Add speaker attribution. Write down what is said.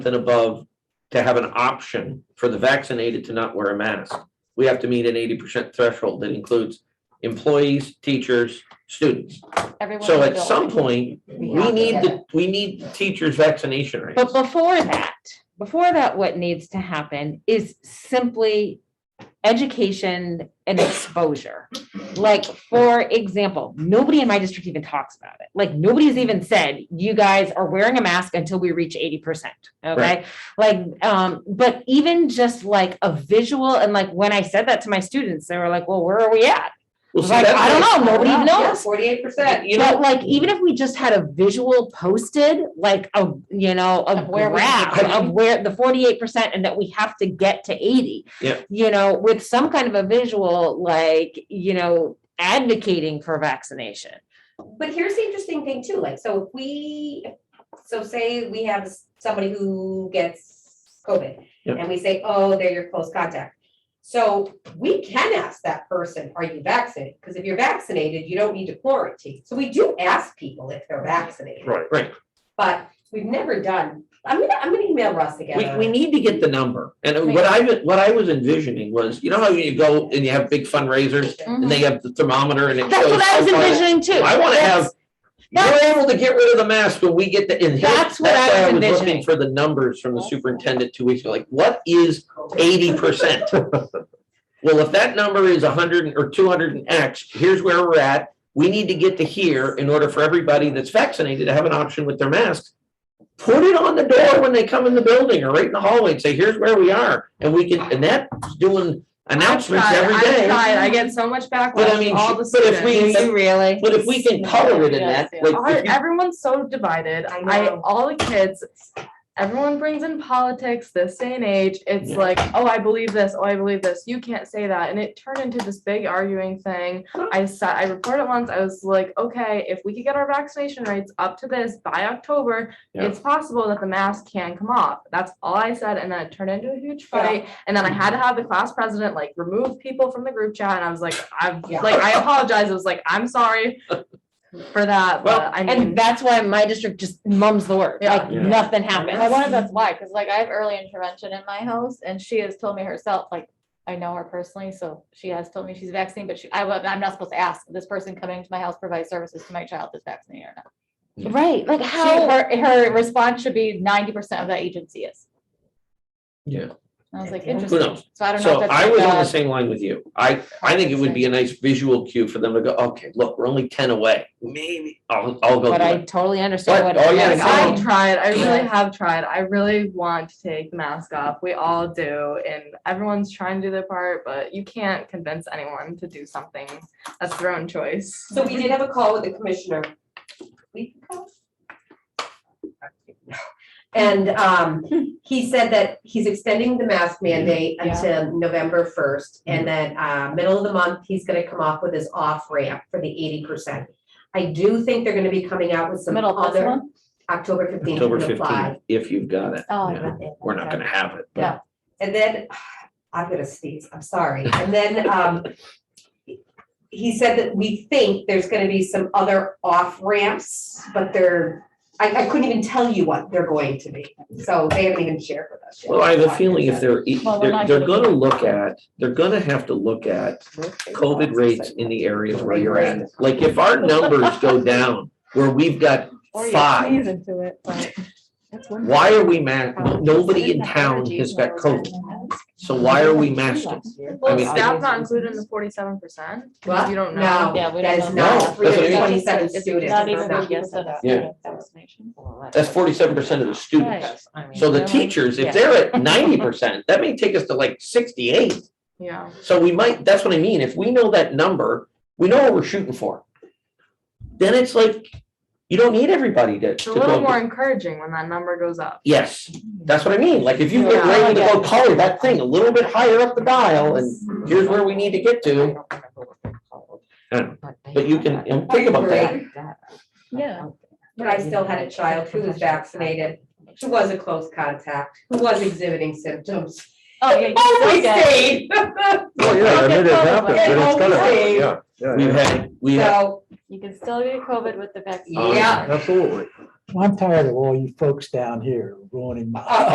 Speaker 1: and above to have an option for the vaccinated to not wear a mask. We have to meet an eighty percent threshold that includes employees, teachers, students.
Speaker 2: everyone. in
Speaker 1: So
Speaker 2: the
Speaker 1: at some
Speaker 2: building.
Speaker 1: point,
Speaker 2: have
Speaker 1: we
Speaker 2: to
Speaker 1: need
Speaker 2: get
Speaker 1: the, we need the teachers' vaccination rates.
Speaker 2: But before that, before that, what needs to happen is simply education and exposure. Like, for example, nobody in my district even talks about it. Like, nobody's even said, you guys are wearing a mask until we reach eighty percent, okay? Like, um, but even just like a visual, and like, when I said that to my students, they were like, well, where are we at?
Speaker 1: Well, see,
Speaker 2: Like,
Speaker 1: that's
Speaker 2: I don't
Speaker 1: what-
Speaker 2: know, nobody knows.
Speaker 3: Forty-eight percent.
Speaker 1: You know,
Speaker 2: But like, even if we just had a visual posted, like a, you know, a
Speaker 3: Of where we
Speaker 2: graph
Speaker 3: are.
Speaker 2: of where the forty-eight percent and that we have to get to eighty.
Speaker 1: Yeah.
Speaker 2: You know, with some kind of a visual, like, you know, advocating for vaccination.
Speaker 3: But here's the interesting thing too, like, so if we, so say we have somebody who gets COVID.
Speaker 1: Yeah.
Speaker 3: And we say, oh, they're your close contact. So we can ask that person, are you vaccinated? Because if you're vaccinated, you don't need to quarantine. So we do ask people if they're vaccinated.
Speaker 1: Right, right.
Speaker 3: But we've never done, I'm gonna, I'm gonna email Russ
Speaker 1: We,
Speaker 3: again.
Speaker 1: we need to get the number. And what I, what I was envisioning was, you know how you go and you have big fundraisers and they have the thermometer and it
Speaker 2: That's
Speaker 1: shows
Speaker 2: what I was
Speaker 1: how far-
Speaker 2: envisioning too.
Speaker 1: I wanna
Speaker 2: That's-
Speaker 1: have, you're able to get rid of the mask when we get the, and here-
Speaker 2: That's what I
Speaker 1: why
Speaker 2: was
Speaker 1: looking
Speaker 2: envisioning.
Speaker 1: For the numbers from the superintendent two weeks ago, like, what is eighty percent? Well, if that number is hundred or two hundred and X, here's where we're at. We need to get to here in order for everybody that's vaccinated to have an option with their masks. Put it on the door when they come in the building or right in the hallway and say, here's where we are. And we can, and that's doing announcements
Speaker 4: tried,
Speaker 1: every
Speaker 4: I've
Speaker 1: day.
Speaker 4: tried, I get so much
Speaker 1: But I
Speaker 4: backlash
Speaker 1: mean,
Speaker 4: from all the
Speaker 1: but if we-
Speaker 4: students.
Speaker 2: You really?
Speaker 1: But if we can color it in that, like.
Speaker 4: Our-
Speaker 1: if you-
Speaker 4: Everyone's so divided.
Speaker 3: I
Speaker 4: I,
Speaker 3: know.
Speaker 4: all the kids, everyone brings in politics this day and age. It's
Speaker 1: Yeah.
Speaker 4: like, oh, I believe this, oh, I believe this. You can't say that. And it turned into this big arguing thing. I sat, I reported once, I was like, okay, if we could get our vaccination rates up to this by October,
Speaker 1: Yeah.
Speaker 4: it's possible that the mask can come off. That's all I said. And then it turned into a huge fight. And then I had to have the class president like remove people from the group chat. And I was like, I'm
Speaker 3: Yeah.
Speaker 4: like, I apologize. I was like, I'm sorry for that.
Speaker 1: Well,
Speaker 4: but I mean.
Speaker 2: And that's why my district just mums the word,
Speaker 4: Yeah.
Speaker 2: like,
Speaker 1: Yeah.
Speaker 2: nothing
Speaker 5: I
Speaker 2: happens.
Speaker 5: wonder if that's why, because like I have early intervention in my house and she has told me herself, like, I know her personally, so she has told me she's vaccinated, but she, I, wa- I'm not supposed to ask this person coming to my house provide services to my child that's vaccinated or not.
Speaker 2: Right, like
Speaker 5: She,
Speaker 2: how,
Speaker 5: her, her response should be ninety percent of that agency is.
Speaker 1: Yeah.
Speaker 5: And I was like,
Speaker 3: Who
Speaker 5: interesting.
Speaker 1: knows?
Speaker 5: So I don't know. if
Speaker 1: So
Speaker 5: that's
Speaker 1: I
Speaker 5: like
Speaker 1: was on
Speaker 5: a-
Speaker 1: the same line with you. I, I think it would be a nice visual cue for them to go, okay, look, we're only ten away. Maybe I'll, I'll go.
Speaker 2: but
Speaker 1: do
Speaker 2: I
Speaker 1: it."
Speaker 2: totally understand
Speaker 1: But oh,
Speaker 2: what.
Speaker 1: all you
Speaker 2: like,
Speaker 1: gotta
Speaker 2: I-
Speaker 1: do-
Speaker 4: I tried. I really
Speaker 5: Yeah.
Speaker 4: have tried. I really want to take the mask off. We all do, and everyone's trying to do their part, but you can't convince anyone to do something that's their own choice.
Speaker 3: So we did have a call with the commissioner. Week ago? And um, he said that he's extending the mask mandate
Speaker 5: Yeah. Mm-hmm.
Speaker 3: until November first. And then uh, middle of the month, he's gonna come off with his off ramp for the eighty percent. I do think they're gonna be coming out with some
Speaker 5: Middle of this
Speaker 3: other,
Speaker 5: month?
Speaker 3: October fifteenth
Speaker 1: October
Speaker 3: to apply.
Speaker 1: fifteenth, if you've got it.
Speaker 5: Oh,
Speaker 1: Yeah.
Speaker 5: okay.
Speaker 1: We're not gonna have it. but-
Speaker 5: Yeah.
Speaker 3: And then, I'm gonna sneeze, I'm sorry. And then, um, he said that we think there's gonna be some other off ramps, but they're, I, I couldn't even tell you what they're going to be. So they haven't even shared with us. yet.
Speaker 1: Well, I have a feeling if they're, e-
Speaker 5: Well, we're
Speaker 1: they're,
Speaker 5: not
Speaker 1: they're
Speaker 5: gonna-
Speaker 1: gonna look at, they're gonna have to look at COVID rates in the areas where you're at. Like if our numbers go down where we've got
Speaker 5: Or you
Speaker 1: five,
Speaker 5: sneeze into it, but that's one
Speaker 1: why are we ma,
Speaker 5: problem.
Speaker 1: nobody
Speaker 5: Isn't
Speaker 1: in
Speaker 5: that
Speaker 1: town
Speaker 5: allergies
Speaker 1: has
Speaker 5: when
Speaker 1: got
Speaker 5: I was in
Speaker 1: COVID,
Speaker 5: my house?
Speaker 1: so why are we masking? I
Speaker 4: Well,
Speaker 1: mean,
Speaker 4: staff not included in the forty-seven percent?
Speaker 3: What?
Speaker 4: You don't
Speaker 3: No,
Speaker 4: know.
Speaker 5: Yeah, we
Speaker 3: that
Speaker 5: don't
Speaker 3: is
Speaker 5: know.
Speaker 1: No,
Speaker 3: not
Speaker 1: that's
Speaker 3: three
Speaker 1: what I
Speaker 3: hundred
Speaker 1: mean.
Speaker 3: twenty-seven
Speaker 5: It's
Speaker 3: students.
Speaker 5: Not
Speaker 3: It's
Speaker 5: even
Speaker 3: not-
Speaker 5: a yes and a
Speaker 1: Yeah.
Speaker 5: no vaccination.
Speaker 1: That's forty-seven percent of the students.
Speaker 5: Right.
Speaker 1: So the
Speaker 5: Yeah.
Speaker 1: teachers, if they're at ninety percent, that may take us to like sixty-eight.
Speaker 4: Yeah.
Speaker 1: So we might, that's what I mean. If we know that number, we know what we're shooting for. Then it's like, you don't need everybody to.
Speaker 4: It's
Speaker 1: to
Speaker 4: a little
Speaker 1: go.
Speaker 4: more encouraging when that number goes up.
Speaker 1: Yes, that's what I mean. Like if you get
Speaker 4: Yeah.
Speaker 1: ready to go color that thing a little bit higher up the dial and here's where we need to get to. But you can, and think about that.
Speaker 5: Yeah.
Speaker 3: But I still had a child who was vaccinated, who was a close contact, who was exhibiting symptoms.
Speaker 5: Oh, yeah. you
Speaker 3: Oh, we
Speaker 5: still get-
Speaker 3: stayed.
Speaker 6: Well, yeah, I mean, it happens, and it's gonna happen, yeah, yeah,
Speaker 1: We've
Speaker 6: yeah,
Speaker 1: had, we have,
Speaker 3: So,
Speaker 5: You can still get COVID
Speaker 1: Oh,
Speaker 5: with the vaccine.
Speaker 3: yeah.
Speaker 6: absolutely.
Speaker 7: Well, I'm tired of all you folks down here ruining my.